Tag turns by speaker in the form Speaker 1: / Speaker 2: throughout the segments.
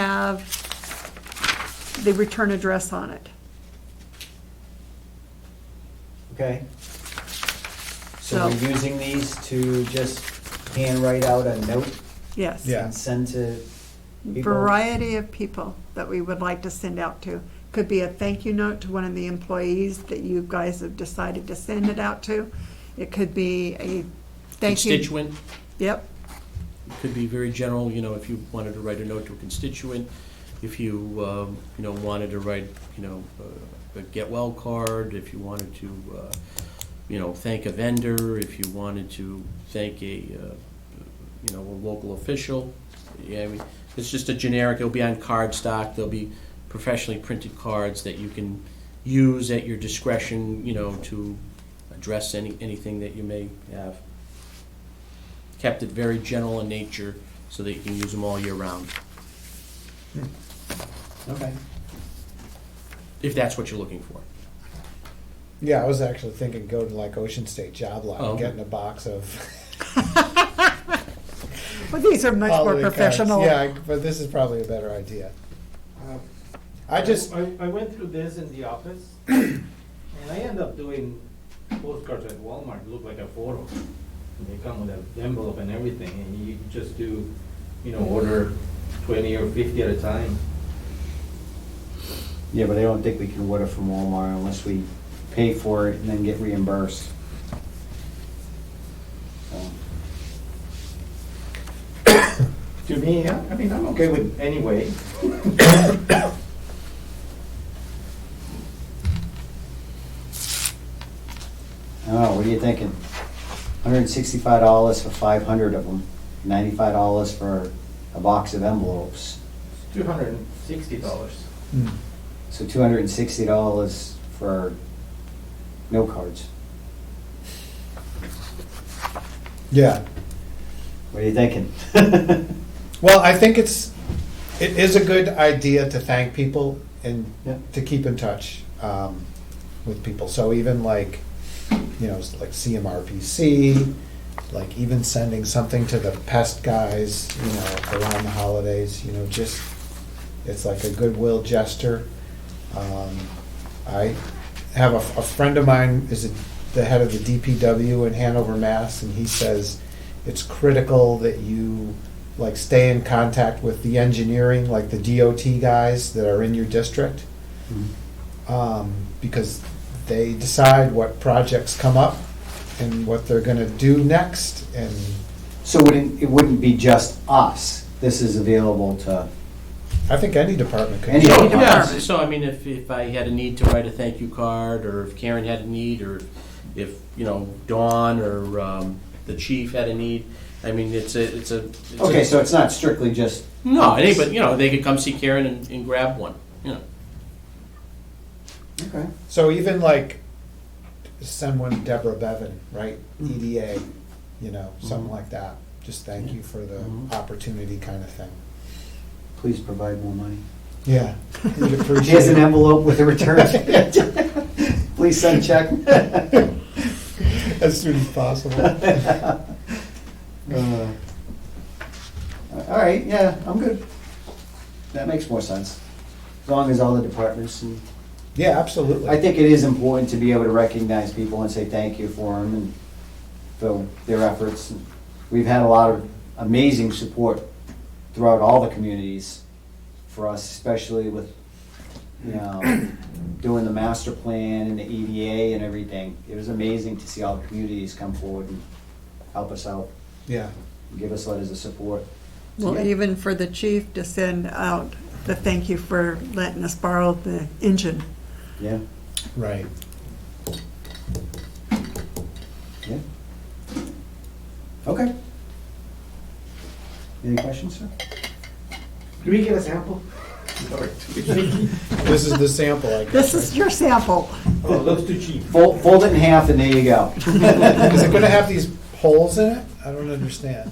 Speaker 1: have the return address on it.
Speaker 2: Okay?
Speaker 1: So-
Speaker 2: So we're using these to just handwrite out a note
Speaker 1: Yes.
Speaker 3: Yeah.
Speaker 2: and send to people?
Speaker 1: Variety of people that we would like to send out to. Could be a thank you note to one of the employees that you guys have decided to send it out to. It could be a thank you.
Speaker 4: Constituent,
Speaker 1: Yep,
Speaker 4: could be very general, you know, if you wanted to write a note to a constituent, if you, um, you know, wanted to write, you know, uh, a get well card, if you wanted to, uh, you know, thank a vendor, if you wanted to thank a, uh, you know, a local official. Yeah, I mean, it's just a generic, it'll be on card stock, there'll be professionally printed cards that you can use at your discretion, you know, to address any, anything that you may have. Kept it very general in nature so that you can use them all year round,
Speaker 2: Okay.
Speaker 4: if that's what you're looking for.
Speaker 3: Yeah, I was actually thinking go to like Ocean State Job Lot
Speaker 4: Oh.
Speaker 3: and getting a box of
Speaker 1: but these are much more
Speaker 3: holiday cards.
Speaker 1: professional.
Speaker 3: Yeah, I- but this is probably a better idea. I just
Speaker 5: I, I went through this in the office, and I end up doing postcards at Walmart, look like a photo. And They come with an envelope and everything, and you just do, you know, order twenty or fifty at a time.
Speaker 2: Yeah, but I don't think we can order from Walmart unless we pay for it and then get reimbursed. So,
Speaker 5: To me, I I mean, I'm okay with anyway.
Speaker 2: I don't know, what are you thinking? Hundred and sixty-five dollars for five hundred of them, ninety-five dollars for a box of envelopes.
Speaker 5: It's two hundred and sixty dollars.
Speaker 3: Hmm.
Speaker 2: So two hundred and sixty dollars for no cards.
Speaker 3: yeah.
Speaker 2: What are you thinking?
Speaker 3: Well, I think it's it is a good idea to thank people and
Speaker 2: Yeah.
Speaker 3: to keep in touch um, with people. So even like you know like CMRPC, like even sending something to the pest guys, you know, around the holidays. You know, just it's like a goodwill gesture. Um, I have a, a friend of mine is the head of the DPW in Hanover, Mass, and he says it's critical that you like stay in contact with the engineering, like the DOT guys that are in your district,
Speaker 2: Mm-hmm.
Speaker 3: um, because they decide what projects come up and what they're going to do next. And
Speaker 2: So it wouldn't, it wouldn't be just us. This is available to,
Speaker 3: I think any department could.
Speaker 2: Any
Speaker 4: So,
Speaker 2: department.
Speaker 4: yeah, so I mean, if, if I had a need to write a thank you card, or if Karen had a need, or if, you know, Dawn or um, the chief had a need, I mean, it's a, it's a. it's a-
Speaker 2: okay, so it's not strictly just.
Speaker 4: No, anybody, you know, they could come see Karen and, and grab one, you know.
Speaker 2: Okay.
Speaker 3: So even like send one Deborah Bevan, right? EDA, you know, something like that. Just thank you for the
Speaker 4: Mhm.
Speaker 3: opportunity, kind of thing.
Speaker 2: Please provide more money.
Speaker 3: Yeah, we'd appreciate
Speaker 2: Here's an
Speaker 3: it.
Speaker 2: envelope with a return. Please send check.
Speaker 3: as soon as possible.
Speaker 2: Uh, All right, yeah, I'm good. That makes more sense, as long as all the departments, and
Speaker 3: Yeah, absolutely.
Speaker 2: I think it is important to be able to recognize people and say thank you for them and for their efforts. We've had a lot of amazing support throughout all the communities for us, especially with, you know, doing the master plan and the EDA and everything. It was amazing to see all the communities come forward and help us out,
Speaker 3: yeah.
Speaker 2: give us letters of support.
Speaker 1: Well, even for the chief to send out the thank you for letting us borrow the engine.
Speaker 2: Yeah,
Speaker 3: Right.
Speaker 2: yeah. Okay. Any questions, sir?
Speaker 5: Do we get a sample?
Speaker 3: This is the sample, I guess.
Speaker 1: This is your sample.
Speaker 5: Oh, it looks too cheap.
Speaker 2: Fold, fold it in half and there you go.
Speaker 3: Is it gonna have these holes in it? I don't understand.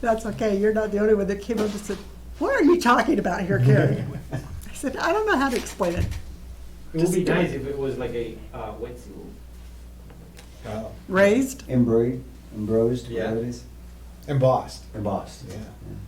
Speaker 1: That's okay, you're not the only one that came up and said, what are you talking about here, Carrie? I said, I don't know how to explain it.
Speaker 5: It would be nice if it was like a, uh, wet seal.
Speaker 3: Oh,
Speaker 1: Raised,
Speaker 2: Embroidered, embrosed,
Speaker 5: Yeah.
Speaker 2: whatever it is.
Speaker 3: Embossed,
Speaker 2: Embossed.
Speaker 3: yeah.